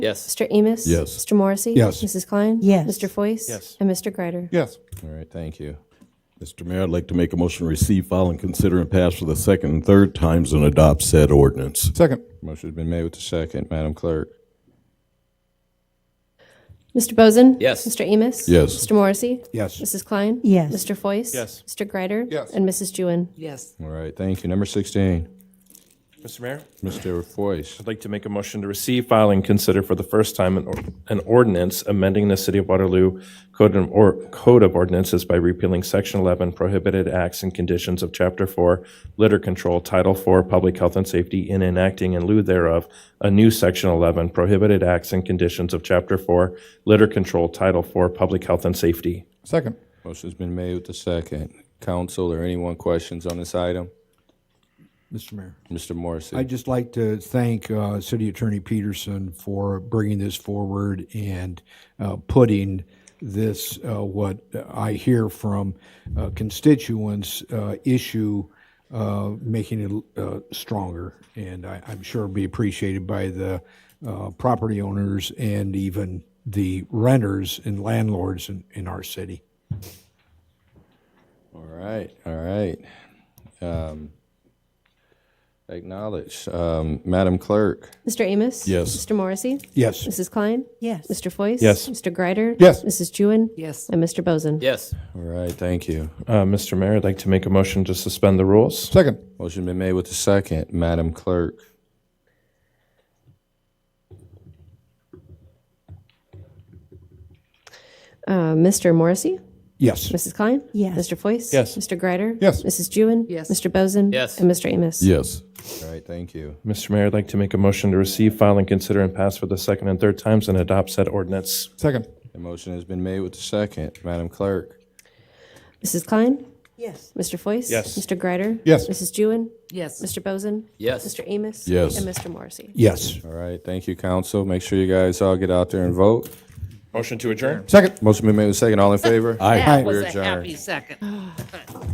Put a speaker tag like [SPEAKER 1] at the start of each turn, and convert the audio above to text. [SPEAKER 1] Yes.
[SPEAKER 2] Mr. Amos?
[SPEAKER 3] Yes.
[SPEAKER 2] Mr. Morrissey?
[SPEAKER 3] Yes.
[SPEAKER 2] Mrs. Klein?
[SPEAKER 4] Yes.
[SPEAKER 2] Mr. Foyce?
[SPEAKER 1] Yes.
[SPEAKER 2] And Mr. Greider?
[SPEAKER 3] Yes.
[SPEAKER 5] All right, thank you.
[SPEAKER 3] Mr. Mayor, I'd like to make a motion to receive, file, and consider and pass for the second and third times and adopt said ordinance.
[SPEAKER 5] Second. Motion's been made with the second. Madam Clerk?
[SPEAKER 2] Mr. Bozen?
[SPEAKER 1] Yes.
[SPEAKER 2] Mr. Amos?
[SPEAKER 3] Yes.
[SPEAKER 2] Mr. Morrissey?
[SPEAKER 5] Yes.
[SPEAKER 2] Mrs. Klein?
[SPEAKER 4] Yes.
[SPEAKER 2] Mr. Foyce?
[SPEAKER 1] Yes.
[SPEAKER 2] Mr. Greider?
[SPEAKER 5] Yes.
[SPEAKER 2] And Mrs. Jewin?
[SPEAKER 4] Yes.
[SPEAKER 5] All right, thank you. Number 16,
[SPEAKER 1] Mr. Mayor,
[SPEAKER 5] Mr. Foyce.
[SPEAKER 1] I'd like to make a motion to receive, file, and consider for the first time an or- an ordinance amending the City of Waterloo Code of or- Code of Ordinances by repealing Section 11 Prohibited Acts and Conditions of Chapter 4 Litter Control, Title 4 Public Health and Safety, and enacting in lieu thereof a new Section 11 Prohibited Acts and Conditions of Chapter 4 Litter Control, Title 4 Public Health and Safety.
[SPEAKER 5] Second. Motion's been made with the second. Council or anyone questions on this item?
[SPEAKER 6] Mr. Mayor.
[SPEAKER 5] Mr. Morrissey?
[SPEAKER 6] I'd just like to thank uh, City Attorney Peterson for bringing this forward and uh, putting this, uh, what I hear from uh, constituents, uh, issue, uh, making it uh, stronger. And I- I'm sure it'll be appreciated by the uh, property owners and even the renters and landlords in in our city.
[SPEAKER 5] All right, all right. Um, Acknowledged. Um, Madam Clerk?
[SPEAKER 2] Mr. Amos?
[SPEAKER 3] Yes.
[SPEAKER 2] Mr. Morrissey?
[SPEAKER 6] Yes.
[SPEAKER 2] Mrs. Klein?
[SPEAKER 4] Yes.
[SPEAKER 2] Mr. Foyce?
[SPEAKER 1] Yes.
[SPEAKER 2] Mr. Greider?
[SPEAKER 5] Yes.
[SPEAKER 2] Mrs. Jewin?
[SPEAKER 4] Yes.
[SPEAKER 2] And Mr. Bozen?
[SPEAKER 1] Yes.
[SPEAKER 5] All right, thank you.
[SPEAKER 1] Uh, Mr. Mayor, I'd like to make a motion to suspend the rules.
[SPEAKER 5] Second. Motion been made with the second. Madam Clerk?
[SPEAKER 2] Uh, Mr. Morrissey?
[SPEAKER 6] Yes.
[SPEAKER 2] Mrs. Klein?
[SPEAKER 4] Yes.
[SPEAKER 2] Mr. Foyce?
[SPEAKER 1] Yes.
[SPEAKER 2] Mr. Greider?
[SPEAKER 5] Yes.
[SPEAKER 2] Mrs. Jewin?
[SPEAKER 4] Yes.
[SPEAKER 2] Mr. Bozen?
[SPEAKER 1] Yes.
[SPEAKER 2] And Mr. Amos?
[SPEAKER 3] Yes.
[SPEAKER 5] All right, thank you.
[SPEAKER 1] Mr. Mayor, I'd like to make a motion to receive, file, and consider and pass for the second and third times and adopt said ordinance.
[SPEAKER 5] Second. The motion has been made with the second. Madam Clerk?
[SPEAKER 2] Mrs. Klein?
[SPEAKER 4] Yes.
[SPEAKER 2] Mr. Foyce?
[SPEAKER 1] Yes.
[SPEAKER 2] Mr. Greider?
[SPEAKER 5] Yes.
[SPEAKER 2] Mrs. Jewin?
[SPEAKER 4] Yes.
[SPEAKER 2] Mr. Bozen?
[SPEAKER 1] Yes.
[SPEAKER 2] Mr. Amos?
[SPEAKER 3] Yes.
[SPEAKER 2] And Mr. Morrissey?
[SPEAKER 6] Yes.
[SPEAKER 5] All right, thank you, council. Make sure you guys all get out there and vote.
[SPEAKER 1] Motion to adjourn?
[SPEAKER 5] Second. Motion been made with second. All in favor?
[SPEAKER 3] Aye.
[SPEAKER 7] That was
[SPEAKER 5] We're
[SPEAKER 7] a
[SPEAKER 5] adjourned.
[SPEAKER 7] happy second.